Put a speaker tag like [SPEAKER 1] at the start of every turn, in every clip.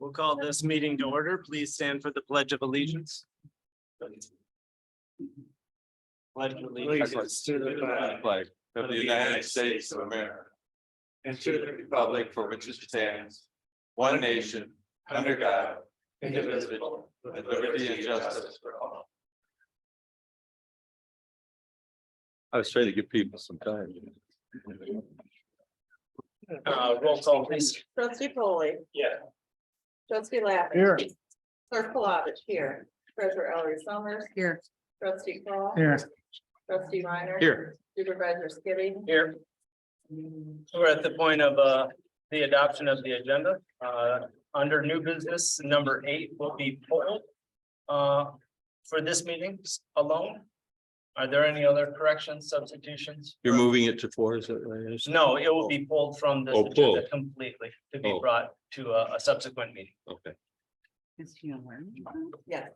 [SPEAKER 1] We'll call this meeting to order. Please stand for the Pledge of Allegiance. Pledge of allegiance to the flag
[SPEAKER 2] flag of the United States of America and to the republic for which it stands, one nation, under God, indivisible, with liberty and justice for all. I was trying to give people some time.
[SPEAKER 1] Uh, roll call, please.
[SPEAKER 3] Trustee Polly.
[SPEAKER 1] Yeah.
[SPEAKER 3] Trustee Lappin.
[SPEAKER 4] Here.
[SPEAKER 3] Clerk Palovich here. Treasurer Ellery Summers. Here. Trustee Paul.
[SPEAKER 4] Here.
[SPEAKER 3] Trustee Reiner.
[SPEAKER 2] Here.
[SPEAKER 3] Supervisor Skibby.
[SPEAKER 1] Here. We're at the point of uh, the adoption of the agenda. Uh, Under new business, number eight will be pulled uh, for this meeting alone. Are there any other corrections, substitutions?
[SPEAKER 5] You're moving it to four, is that what it is?
[SPEAKER 1] No, it will be pulled from this
[SPEAKER 5] Oh, pulled.
[SPEAKER 1] agenda completely to be
[SPEAKER 5] Oh.
[SPEAKER 1] brought to a a subsequent meeting.
[SPEAKER 5] Okay,
[SPEAKER 3] Yes.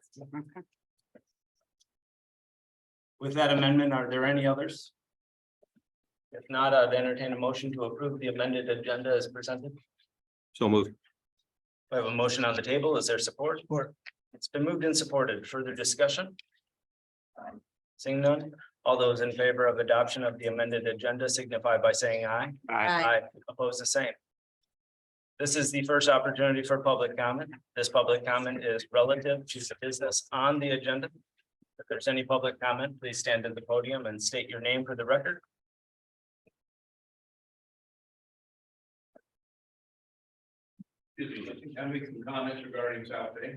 [SPEAKER 1] With that amendment, are there any others? If not, I'd entertain a motion to approve the amended agenda as presented.
[SPEAKER 5] so moved.
[SPEAKER 1] We have a motion on the table. Is there support?
[SPEAKER 4] Support.
[SPEAKER 1] It's been moved and supported. Further discussion? Seeing none, all those in favor of adoption of the amended agenda signify by saying aye. I oppose the same. This is the first opportunity for public comment. This public comment is relative to the business on the agenda. If there's any public comment, please stand at the podium and state your name for the record.
[SPEAKER 2] Can we comment regarding South Bay?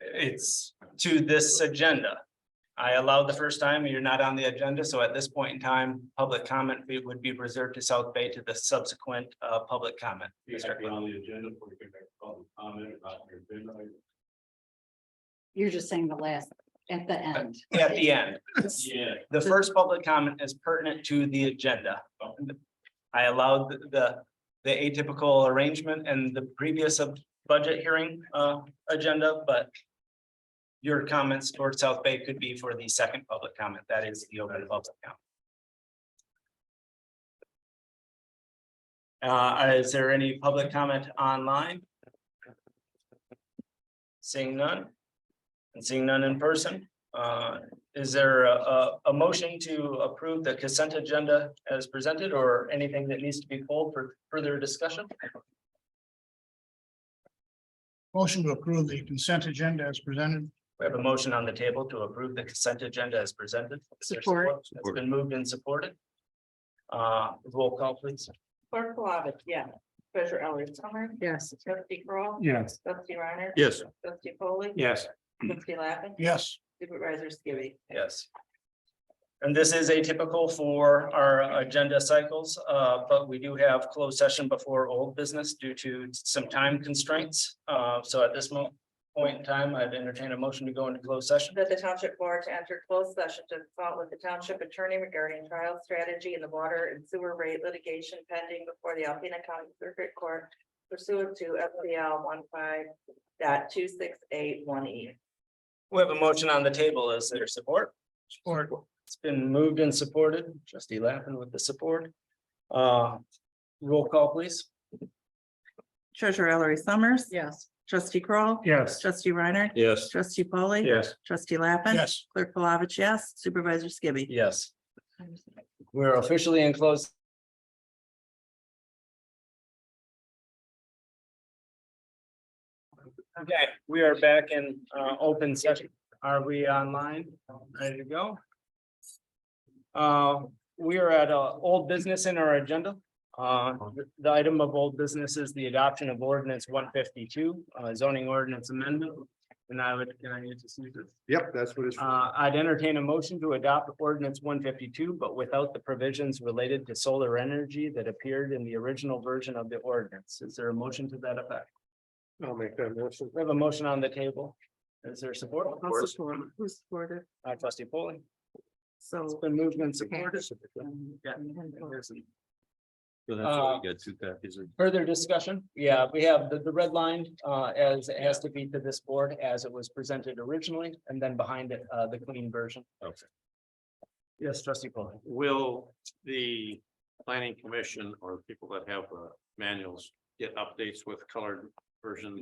[SPEAKER 1] It's to this agenda. I allowed the first time, you're not on the agenda, so at this point in time, public comment be- would be reserved to South Bay to the subsequent uh public comment.
[SPEAKER 2] You
[SPEAKER 1] Mr. Clown.
[SPEAKER 2] on the agenda for your public comment about your agenda.
[SPEAKER 6] You're just saying the last, at the end.
[SPEAKER 1] At the end,
[SPEAKER 2] Yeah.
[SPEAKER 1] the first public comment is pertinent to the agenda. I allowed the- the the atypical arrangement and the previous of budget hearing uh agenda, but. Your comments towards South Bay could be for the second public comment, that is the open public comment. Uh, is there any public comment online? Seeing none? And seeing none in person, uh, is there a, a, a motion to approve the consent agenda as presented or anything that needs to be pulled for further discussion?
[SPEAKER 4] Motion to approve the consent agenda as presented.
[SPEAKER 1] We have a motion on the table to approve the consent agenda as presented. Is there
[SPEAKER 6] Support.
[SPEAKER 1] It's been moved and supported. Uh, roll call please.
[SPEAKER 3] Clerk Palovich, yeah. Treasurer Ellery Summers.
[SPEAKER 6] Yes.
[SPEAKER 3] Trustee Crawl.
[SPEAKER 4] Yes.
[SPEAKER 3] Trustee Reiner.
[SPEAKER 5] Yes,
[SPEAKER 3] Trustee Polly.
[SPEAKER 4] Yes.
[SPEAKER 3] Trustee Lappin.
[SPEAKER 4] Yes.
[SPEAKER 3] Supervisor Skibby.
[SPEAKER 1] Yes. And this is atypical for our agenda cycles, uh, but we do have closed session before old business due to some time constraints. Uh, so at this mo- point in time, I'd entertain a motion to go into closed session.
[SPEAKER 3] That the township board to enter closed session to consult with the township attorney regarding trial strategy in the water and sewer rate litigation pending before the Alpena County Circuit Court pursuant to FPL one five dot two six eight one E.
[SPEAKER 1] We have a motion on the table. Is there support?
[SPEAKER 4] Support.
[SPEAKER 1] It's been moved and supported. Trustee Lappin with the support. Uh, roll call please.
[SPEAKER 7] Treasurer Ellery Summers.
[SPEAKER 6] Yes.
[SPEAKER 7] Trustee Kroll,
[SPEAKER 4] Yes.
[SPEAKER 7] Trustee Reiner.
[SPEAKER 5] yes.
[SPEAKER 7] Trustee Polly.
[SPEAKER 4] Yes.
[SPEAKER 7] Trustee Lappin.
[SPEAKER 4] Yes.
[SPEAKER 7] Clerk Palovich, yes. Supervisor Skibby.
[SPEAKER 1] Yes. We're officially in closed Okay, we are back in uh open session. Are we online? Ready to go? Uh, we are at uh old business in our agenda. Uh, the item of old business is the adoption of ordinance one fifty-two, uh zoning ordinance amendment. And I would, can I just use this?
[SPEAKER 8] Yep, that's what it's.
[SPEAKER 1] Uh, I'd entertain a motion to adopt ordinance one fifty-two, but without the provisions related to solar energy that appeared in the original version of the ordinance. Is there a motion to that effect?
[SPEAKER 8] I'll make that motion.
[SPEAKER 1] We have a motion on the table. Is there support?
[SPEAKER 7] Who's supported?
[SPEAKER 1] By trustee Polling. It's
[SPEAKER 7] So.
[SPEAKER 1] been moved and supported. Yeah.
[SPEAKER 5] So that's why we got two copies of-
[SPEAKER 1] Further discussion? Yeah, we have the, the red line, uh, as it has to be to this board as it was presented originally, and then behind it, uh, the clean version.
[SPEAKER 5] Okay.
[SPEAKER 1] Yes, trustee Polling.
[SPEAKER 2] Will the planning commission or people that have uh, manuals get updates with colored versions